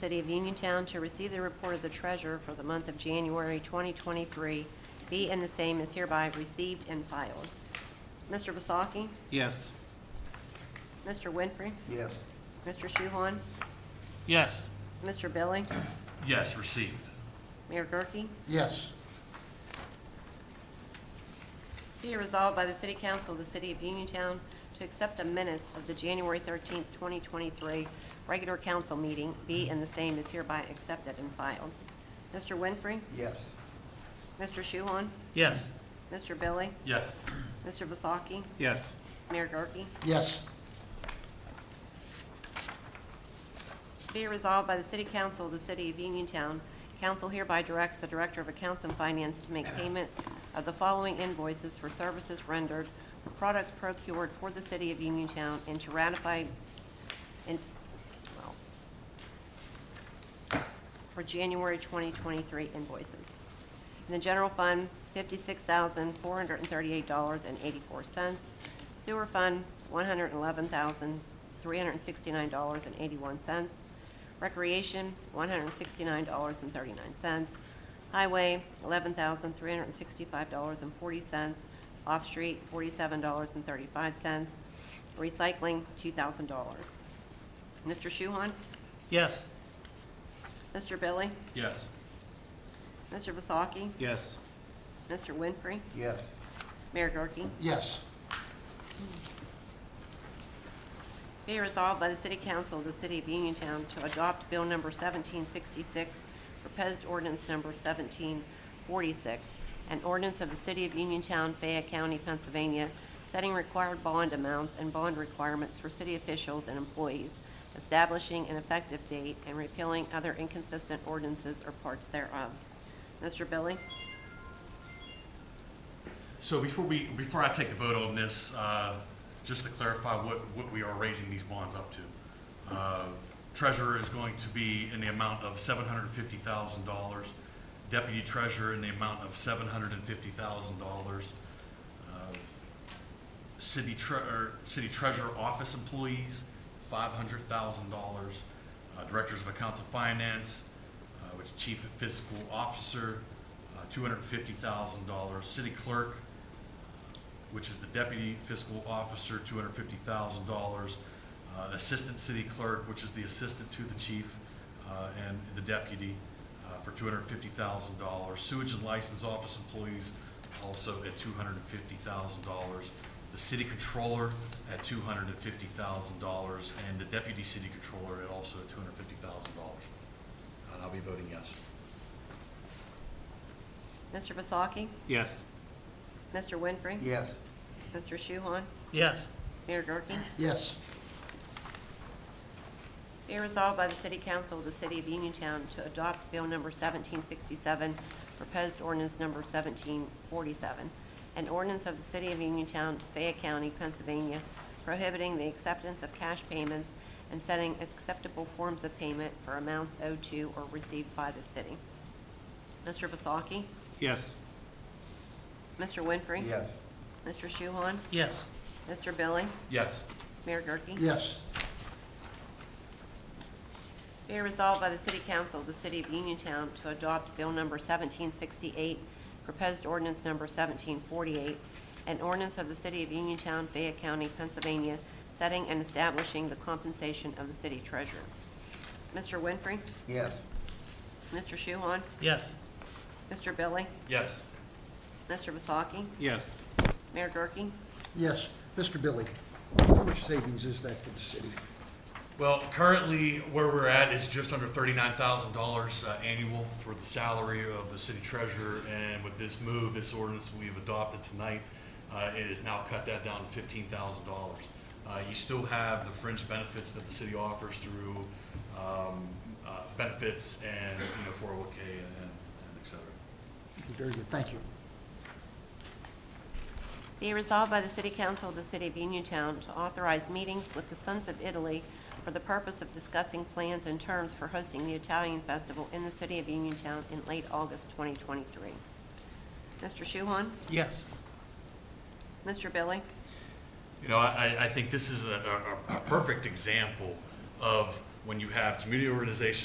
City of Uniontown to receive the report of the treasurer for the month of January 2023, be and the same is hereby received and filed. Mr. Vasaki? Yes. Mr. Winfrey? Yes. Mr. Shuhon? Yes. Mr. Billy? Yes, received. Mayor Gurke? Yes. Be it resolved by the City Council of the City of Uniontown to accept the minutes of the January 13th, 2023 regular council meeting, be and the same is hereby accepted and filed. Mr. Winfrey? Yes. Mr. Shuhon? Yes. Mr. Billy? Yes. Mr. Vasaki? Yes. Mayor Gurke? Yes. Be it resolved by the City Council of the City of Uniontown, council hereby directs the Director of Accounts and Finance to make payment of the following invoices for services rendered, for products procured for the City of Uniontown, and to ratify, and, well, for January 2023 invoices. In the general fund, $56,438.84. Sewer fund, $111,369.81. Recreation, $169.39. Highway, $11,365.40. Off-street, $47.35. Recycling, $2,000. Mr. Shuhon? Yes. Mr. Billy? Yes. Mr. Vasaki? Yes. Mr. Winfrey? Yes. Mayor Gurke? Yes. Be resolved by the City Council of the City of Uniontown to adopt Bill Number 1766, proposed ordinance number 1746, an ordinance of the City of Uniontown, Fayette County, Pennsylvania, setting required bond amounts and bond requirements for city officials and employees, establishing an effective date, and repealing other inconsistent ordinances or parts thereof. Mr. Billy? So before we, before I take the vote on this, uh, just to clarify what, what we are raising these bonds up to. Uh, Treasurer is going to be in the amount of seven hundred and fifty thousand dollars. Deputy treasurer in the amount of seven hundred and fifty thousand dollars. Uh, City tre, or city treasurer office employees, five hundred thousand dollars. Uh, Directors of accounts of finance, uh, which chief fiscal officer, uh, two hundred and fifty thousand dollars. City clerk, which is the deputy fiscal officer, two hundred fifty thousand dollars. uh, Assistant city clerk, which is the assistant to the chief, uh, and the deputy, uh, for two hundred fifty thousand dollars. Sewage and license office employees also at two hundred and fifty thousand dollars. The city controller at two hundred and fifty thousand dollars, and the deputy city controller at also two hundred fifty thousand dollars. And I'll be voting yes. Mr. Vasaki? Yes. Mr. Winfrey? Yes. Mr. Shuhon? Yes. Mayor Gurke? Yes. Be resolved by the City Council of the City of Uniontown to adopt Bill Number 1767, proposed ordinance Number 1747, an ordinance of the City of Uniontown, Fayette County, Pennsylvania, prohibiting the acceptance of cash payments and setting acceptable forms of payment for amounts owed to or received by the city. Mr. Vasaki? Yes. Mr. Winfrey? Yes. Mr. Shuhon? Yes. Mr. Billy? Yes. Mayor Gurke? Yes. Be resolved by the City Council of the City of Uniontown to adopt Bill Number 1768, proposed ordinance Number 1748, an ordinance of the City of Uniontown, Fayette County, Pennsylvania, setting and establishing the compensation of the city treasurer. Mr. Winfrey? Yes. Mr. Shuhon? Yes. Mr. Billy? Yes. Mr. Vasaki? Yes. Mayor Gurke? Yes. Mr. Billy, how much savings is that for the city? Well, currently, where we're at is just under thirty-nine thousand dollars uh, annual for the salary of the city treasurer, and with this move, this ordinance we've adopted tonight, uh, it has now cut that down to fifteen thousand dollars. Uh, You still have the fringe benefits that the city offers through um, uh, benefits and, you know, four oh one K and and et cetera. Very good, thank you. Be resolved by the City Council of the City of Uniontown to authorize meetings with the Sons of Italy for the purpose of discussing plans and terms for hosting the Italian Festival in the City of Uniontown in late August 2023. Mr. Shuhon? Yes. Mr. Billy? You know, I, I think this is a, a, a perfect example of when you have community organizations